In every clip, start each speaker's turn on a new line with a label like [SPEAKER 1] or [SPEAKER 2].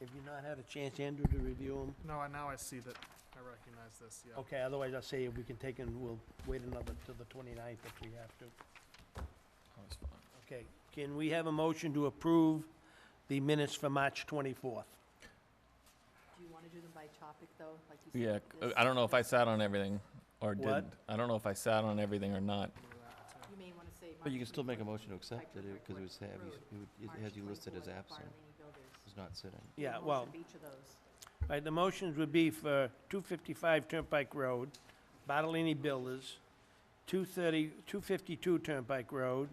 [SPEAKER 1] Have you not had a chance, Andrew, to review them?
[SPEAKER 2] No, I- now I see that, I recognize this, yeah.
[SPEAKER 1] Okay, otherwise I'll say we can take and we'll wait another till the 29th if we have to. Okay, can we have a motion to approve the minutes for March 24th?
[SPEAKER 3] Do you want to do them by topic, though, like you
[SPEAKER 4] Yeah,
[SPEAKER 3] said?
[SPEAKER 4] c-
[SPEAKER 3] this-
[SPEAKER 4] I don't know if I sat on everything or
[SPEAKER 1] What?
[SPEAKER 4] didn't. I don't know if I sat on everything or not.
[SPEAKER 3] You may want to say.
[SPEAKER 5] But you can
[SPEAKER 3] March
[SPEAKER 5] still make a
[SPEAKER 3] 24th,
[SPEAKER 5] motion to accept it, because it was, have you- it would- it
[SPEAKER 3] March
[SPEAKER 5] has you listed as
[SPEAKER 3] 24th,
[SPEAKER 5] absent,
[SPEAKER 3] Barlini Builders.
[SPEAKER 5] as not sitting.
[SPEAKER 3] Do you
[SPEAKER 1] Yeah,
[SPEAKER 3] motion
[SPEAKER 1] well-
[SPEAKER 3] of each of those?
[SPEAKER 1] All right, the motions would be for 255 Turnpike Road, Bartolini Builders, 230, 252 Turnpike Road,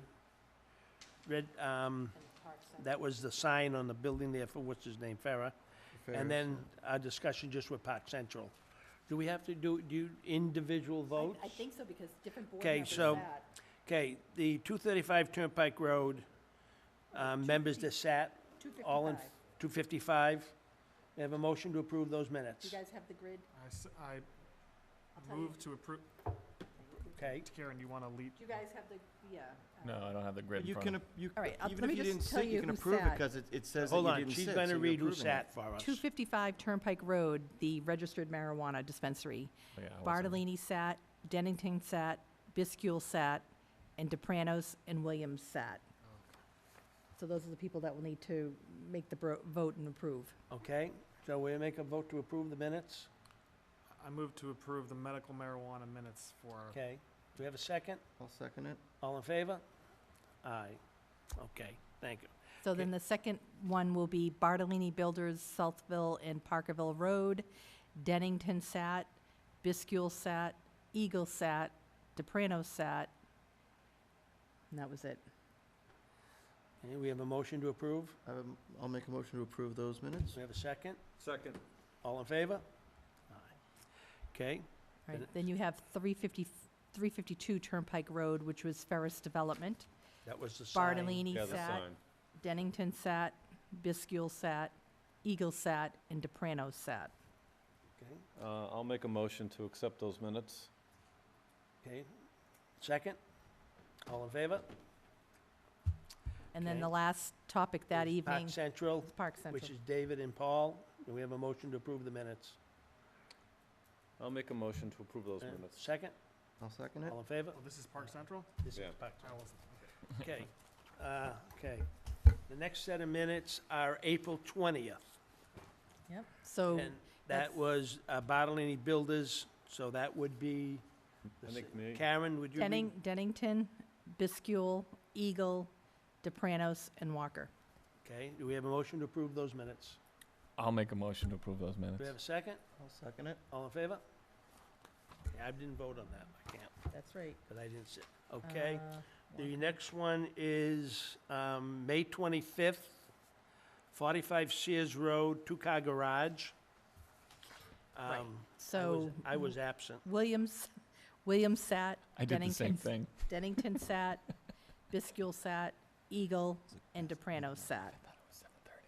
[SPEAKER 1] Red, um,
[SPEAKER 3] And Park Center.
[SPEAKER 1] that was the sign on the building there for what's his name, Farah. And then our discussion just with Park Central. Do we have to do, do you individual
[SPEAKER 3] I-
[SPEAKER 1] votes?
[SPEAKER 3] I think so, because different board
[SPEAKER 1] Okay,
[SPEAKER 3] members
[SPEAKER 1] so-
[SPEAKER 3] sat.
[SPEAKER 1] Okay, the 235 Turnpike Road, um, members that sat, all in,
[SPEAKER 3] 255.
[SPEAKER 1] 255. May I have a motion to approve those
[SPEAKER 3] Do you
[SPEAKER 1] minutes?
[SPEAKER 3] guys have the grid?
[SPEAKER 2] I s- I
[SPEAKER 3] I'll tell you.
[SPEAKER 2] move to approve,
[SPEAKER 1] Okay,
[SPEAKER 2] Karen, you want to lead?
[SPEAKER 3] Do you guys have the, yeah. uh,
[SPEAKER 4] No, I don't have the grid in
[SPEAKER 5] You
[SPEAKER 4] front of
[SPEAKER 5] can,
[SPEAKER 4] me.
[SPEAKER 5] you,
[SPEAKER 6] All right, I'll-
[SPEAKER 5] even
[SPEAKER 6] let
[SPEAKER 5] if
[SPEAKER 6] me
[SPEAKER 5] you didn't
[SPEAKER 6] just tell
[SPEAKER 5] sit,
[SPEAKER 6] you
[SPEAKER 5] you can
[SPEAKER 6] who
[SPEAKER 5] approve it,
[SPEAKER 6] sat.
[SPEAKER 5] because it, it says that you
[SPEAKER 1] hold on,
[SPEAKER 5] didn't sit.
[SPEAKER 1] she's
[SPEAKER 5] so
[SPEAKER 1] gonna
[SPEAKER 5] you're
[SPEAKER 1] read who
[SPEAKER 5] approving it.
[SPEAKER 1] sat for us.
[SPEAKER 6] 255 Turnpike Road, the registered marijuana dispensary.
[SPEAKER 4] Oh, yeah, I wasn't.
[SPEAKER 6] Bartolini sat, Dennington sat, Biscule sat, and DePranos and Williams sat. So those are the people that will need to make the bro- vote and approve.
[SPEAKER 1] Okay, so we make a vote to approve the minutes?
[SPEAKER 2] I move to approve the medical marijuana minutes for
[SPEAKER 1] Okay, do we have a second?
[SPEAKER 5] I'll second it.
[SPEAKER 1] All in favor? Aye. Okay, thank you.
[SPEAKER 6] So then the second one will be Bartolini Builders, Southville and Parkerville Road, Dennington sat, Biscule sat, Eagle sat, DePranos sat, and that was it.
[SPEAKER 1] Okay, we have a motion to approve?
[SPEAKER 5] I have a m- Um, I'll make a motion to approve those minutes.
[SPEAKER 1] Do we have a second?
[SPEAKER 2] Second.
[SPEAKER 1] All in favor? Aye. Okay,
[SPEAKER 6] Right,
[SPEAKER 1] Minutes.
[SPEAKER 6] then you have 350, 352 Turnpike Road, which was Ferris Development.
[SPEAKER 1] that was the sign.
[SPEAKER 6] Bartolini sat, Dennington sat, Biscule sat, Eagle sat, and DePrano sat.
[SPEAKER 1] Okay,
[SPEAKER 7] Uh, I'll make a motion to accept those minutes.
[SPEAKER 1] okay, second? All in favor?
[SPEAKER 6] And then the
[SPEAKER 1] Okay.
[SPEAKER 6] last topic that
[SPEAKER 1] Is Park
[SPEAKER 6] evening
[SPEAKER 1] Central,
[SPEAKER 6] was Park
[SPEAKER 1] which
[SPEAKER 6] Central.
[SPEAKER 1] is David and Paul. Do we have a motion to approve the minutes?
[SPEAKER 7] I'll make a motion to approve those
[SPEAKER 1] Uh,
[SPEAKER 7] minutes.
[SPEAKER 1] Second?
[SPEAKER 5] I'll second it.
[SPEAKER 1] All in favor?
[SPEAKER 2] Oh, this is Park Central?
[SPEAKER 1] This is
[SPEAKER 7] Yeah.
[SPEAKER 1] Park
[SPEAKER 2] I wasn't,
[SPEAKER 1] Okay, uh, okay. The next set of minutes are April twentieth,
[SPEAKER 6] Yep,
[SPEAKER 1] and
[SPEAKER 6] so,
[SPEAKER 1] that
[SPEAKER 6] Oh, that's-
[SPEAKER 1] was uh, Bartolini Builders, so that would be.
[SPEAKER 7] I
[SPEAKER 1] the s-
[SPEAKER 7] think me.
[SPEAKER 1] Karen, would you read?
[SPEAKER 6] Denning, Dennington, Biscule, Eagle, DePranos, and Walker.
[SPEAKER 1] Okay, do we have a motion to approve those minutes?
[SPEAKER 4] I'll make a motion to approve those
[SPEAKER 1] Do we have
[SPEAKER 4] minutes.
[SPEAKER 1] a second?
[SPEAKER 5] I'll second it.
[SPEAKER 1] All in favor? Yeah, I didn't vote on that, I can't,
[SPEAKER 6] That's right.
[SPEAKER 1] because I didn't sit. Okay, the next one is um, May twenty-fifth, forty-five Sears Road, two-car garage. Um,
[SPEAKER 6] Right.
[SPEAKER 1] I was-
[SPEAKER 6] So
[SPEAKER 1] I was absent.
[SPEAKER 6] Williams, Williams sat,
[SPEAKER 4] I did the same
[SPEAKER 6] Dennington-
[SPEAKER 4] thing.
[SPEAKER 6] Dennington sat, Biscule sat, Eagle, and DePrano sat.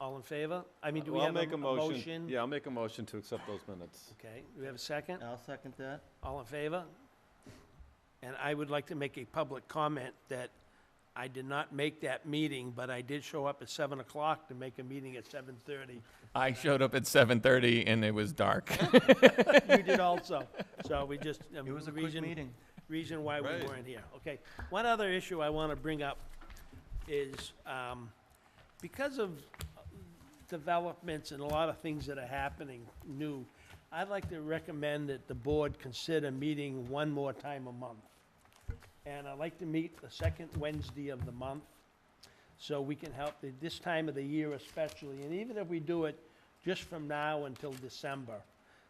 [SPEAKER 1] All in favor? I mean, do we
[SPEAKER 7] Well, I'll
[SPEAKER 1] have a
[SPEAKER 7] make
[SPEAKER 1] a motion?
[SPEAKER 7] Yeah, I'll make a motion to accept those minutes.
[SPEAKER 1] Okay, do we have a second?
[SPEAKER 5] I'll second that.
[SPEAKER 1] All in favor? And I would like to make a public comment that I did not make that meeting, but I did show up at seven o'clock to make a meeting at seven thirty.
[SPEAKER 4] I showed up at 7:30 and it was dark.
[SPEAKER 1] You did also, so we just. um,
[SPEAKER 5] It was a quick
[SPEAKER 1] reason-
[SPEAKER 5] meeting.
[SPEAKER 1] Reason why we
[SPEAKER 7] Right.
[SPEAKER 1] weren't here, okay. One other issue I want to bring up is, um, because of developments and a lot of things that are happening new, I'd like to recommend that the board consider meeting one more time a month. And I'd like to meet the second Wednesday of the month, so we can help, the- this time of the year especially, and even if we do it just from now until December,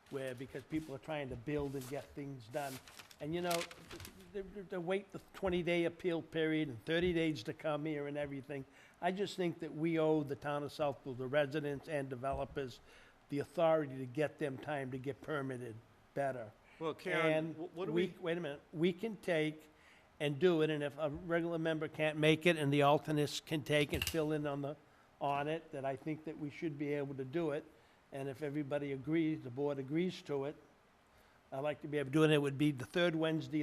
[SPEAKER 1] where, because people are trying to build and get things done. And you know, th- th- to wait the 20-day appeal period and 30 days to come here and everything, I just think that we owe the town of Southfield, the residents and developers, the authority to get them time to get permitted better.
[SPEAKER 7] Well, Karen,
[SPEAKER 1] And
[SPEAKER 7] wh- what do we,
[SPEAKER 1] Wait a minute, we can take and do it, and if a regular member can't make it and the alternates can take and fill in on the, on it, that I think that we should be able to do it. And if everybody agrees, the board agrees to it, I'd like to be able to do it. It would be the third Wednesday